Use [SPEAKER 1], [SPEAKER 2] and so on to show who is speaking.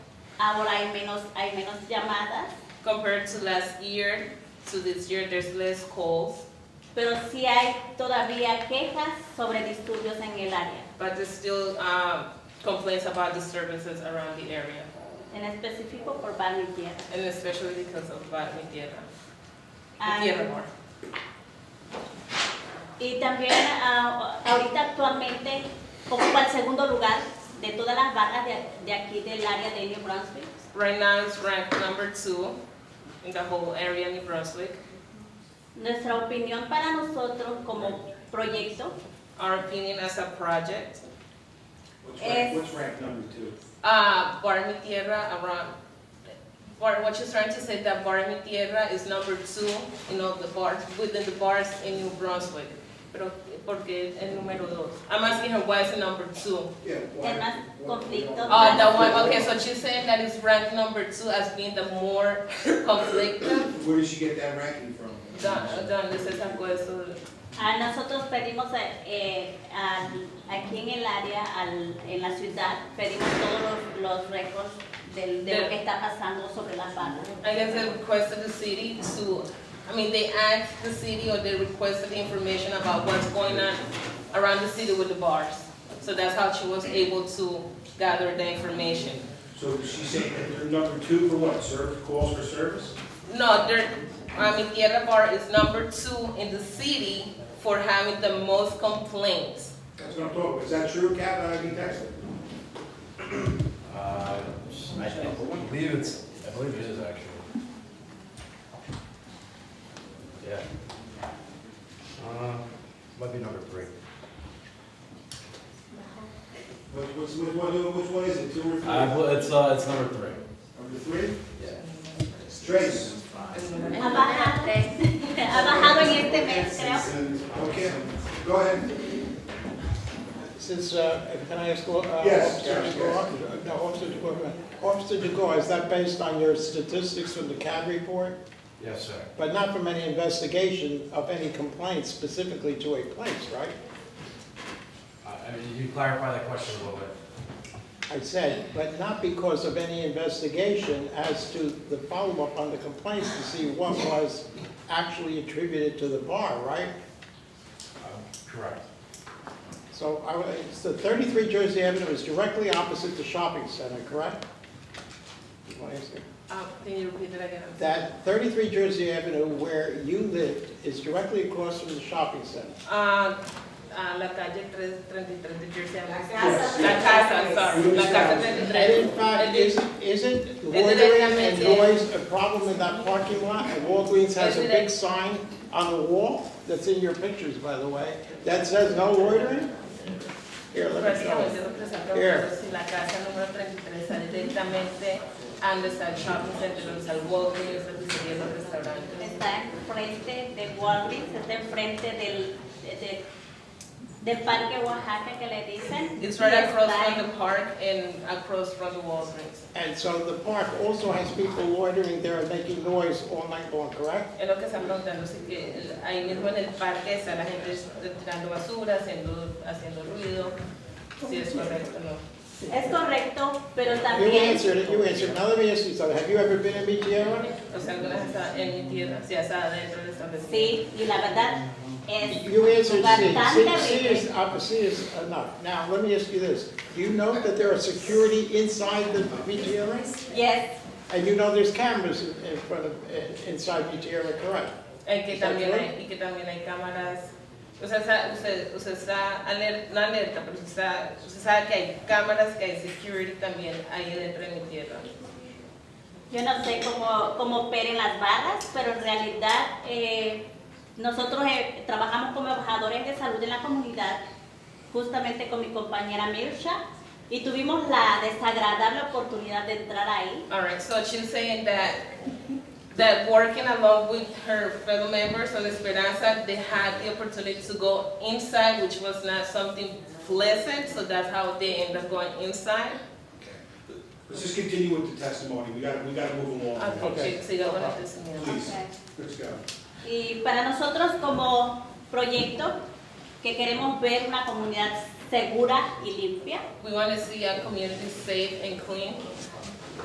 [SPEAKER 1] ahora hay menos, hay menos llamadas,
[SPEAKER 2] Compared to last year, to this year, there's less calls,
[SPEAKER 1] pero sí hay todavía quejas sobre disturbios en el área,
[SPEAKER 2] but there's still um, complaints about disturbances around the area,
[SPEAKER 1] en específico por Barrio Tierra.
[SPEAKER 2] and especially because of Bad Mediana.
[SPEAKER 1] Ah,
[SPEAKER 2] Mediana more.
[SPEAKER 1] Y también ah, ahorita actualmente ocupa el segundo lugar de todas las barras de, de aquí del área de New Brunswick.
[SPEAKER 2] Right now, it's ranked number two in the whole area, New Brunswick.
[SPEAKER 1] Nuestra opinión para nosotros como proyecto
[SPEAKER 2] Our opinion as a project,
[SPEAKER 3] What's
[SPEAKER 1] Es-
[SPEAKER 3] rank, what's rank number two?
[SPEAKER 2] uh, Bar Mi Tierra around, Bar, what she's trying to say that Bar Mi Tierra is number two in all the bars, within the bars in New Brunswick. Pero, porque el número dos. I'm asking her why is it number two?
[SPEAKER 3] Yeah.
[SPEAKER 1] El más conflicto.
[SPEAKER 2] Oh, that one, okay, so she's saying that it's ranked number two as being the more conflicted.
[SPEAKER 3] Where did she get that ranking from?
[SPEAKER 2] Don, Don, this is a question.
[SPEAKER 1] a Ah, nosotros pedimos eh, eh, al- aquí en el área, al- en la ciudad, pedimos todos los, los récords del- de lo que está pasando sobre las barras.
[SPEAKER 2] I guess they requested the city to, I mean, they asked the city or they requested the information about what's going on around the city with the bars. So that's how she was able to gather the information.
[SPEAKER 3] So she's saying that they're number two for what, serve, calls for service?
[SPEAKER 2] No, there, I mean, Tierra Bar is number two in the city for having the most complaints.
[SPEAKER 3] That's what I'm talking about, is that true, Captain, I can text her.
[SPEAKER 4] Uh, I believe it's, I believe it is actually. Yeah. Uh, might be number three.
[SPEAKER 3] What, what's, what, what- which one is it, two or three?
[SPEAKER 4] I, bel- it's, uh, it's number three.
[SPEAKER 3] Number three?
[SPEAKER 4] Yeah.
[SPEAKER 3] Trace.
[SPEAKER 1] Ha bajado, ha bajado en este mes, creo.
[SPEAKER 3] Okay, go ahead.
[SPEAKER 5] Since, uh, can I ask, uh,
[SPEAKER 3] Yes,
[SPEAKER 5] Officer
[SPEAKER 3] yes,
[SPEAKER 5] DeGore? No, Officer DeGore, Officer DeGore, is that based on your statistics from the CAD report?
[SPEAKER 4] Yes, sir.
[SPEAKER 5] But not from any investigation of any complaints specifically to a place, right?
[SPEAKER 4] Uh, I mean, you clarify that question a little bit.
[SPEAKER 5] I said, but not because of any investigation as to the follow-up on the complaints to see what was actually attributed to the bar, right?
[SPEAKER 4] Um, Correct.
[SPEAKER 5] So I, would- so 33 Jersey Avenue is directly opposite the shopping center, correct? Well, yes, sir.
[SPEAKER 2] Uh, can you repeat that again? I'm sorry.
[SPEAKER 5] That 33 Jersey Avenue where you lived is directly across from the shopping center.
[SPEAKER 2] Ah, ah, la calle 333 de Jersey Avenue.
[SPEAKER 3] casa.
[SPEAKER 2] La casa, I'm sorry, la casa
[SPEAKER 5] And in
[SPEAKER 2] 33.
[SPEAKER 5] fact, isn't, isn't loitering and
[SPEAKER 2] directamente-
[SPEAKER 5] noise a problem in that parking lot? And Walgreens has a big sign on the wall, that's in your pictures, by the way, that says no loitering? Here, let me show
[SPEAKER 2] Básicamente
[SPEAKER 5] you.
[SPEAKER 2] lo Pues que se ha
[SPEAKER 5] Here.
[SPEAKER 2] si la casa número 33 sale directamente a donde está el shopping center, donde está el Walgreens, donde sería los restaurantes.
[SPEAKER 1] Está enfrente de Walgreens, está enfrente del, de- de- del Parque Oaxaca que le dicen.
[SPEAKER 2] It's right
[SPEAKER 1] Y
[SPEAKER 2] across
[SPEAKER 1] está
[SPEAKER 2] from the park and across from the Walgreens.
[SPEAKER 5] And so the park also has people loitering there and making noise all night long, correct?
[SPEAKER 2] Es lo que están preguntando, si que el- ahí mismo en el parque está la gente tirando basura, haciendo, haciendo ruido, si es correcto o no.
[SPEAKER 1] Es correcto, pero
[SPEAKER 5] You
[SPEAKER 1] también
[SPEAKER 5] answered it, you answered. Now let me ask you something, have you ever been in Michiana?
[SPEAKER 2] O sea, algunas están en mi tierra, si hasta adentro del establecimiento.
[SPEAKER 1] Sí, y la verdad es
[SPEAKER 5] You answered C. C,
[SPEAKER 1] Bastante
[SPEAKER 5] C is, uh, C is enough. Now, let me ask you this. Do you know that there are security inside the VGRA?
[SPEAKER 1] yes,
[SPEAKER 5] And you know there's cameras in in front of, in- inside VGRA, correct?
[SPEAKER 2] Eh, que
[SPEAKER 5] ¿Está
[SPEAKER 2] también
[SPEAKER 5] claro?
[SPEAKER 2] hay, y que también hay cámaras. O sea, sa- usted, usted está aler- no alerta, pero usted, está- usted sabe que hay cámaras, que hay security también ahí dentro de mi tierra.
[SPEAKER 1] yo no sé cómo, cómo operen las barras, pero en realidad eh, nosotros eh, trabajamos como embajadores de salud en la comunidad, justamente con mi compañera Mirsha, y tuvimos la desagradable oportunidad de entrar ahí.
[SPEAKER 2] Alright, so she's saying that that working along with her fellow members on Esperanza, they had the opportunity to go inside, which was not something pleasant, so that's how they end up going inside.
[SPEAKER 3] Let's just continue with the testimony, we gotta, we gotta move along.
[SPEAKER 2] Okay,
[SPEAKER 5] Okay.
[SPEAKER 2] sí, siga con el testimonio.
[SPEAKER 3] Please, let's go.
[SPEAKER 1] Y para nosotros como proyecto que queremos ver una comunidad segura y limpia,
[SPEAKER 2] We want to see our community safe and clean.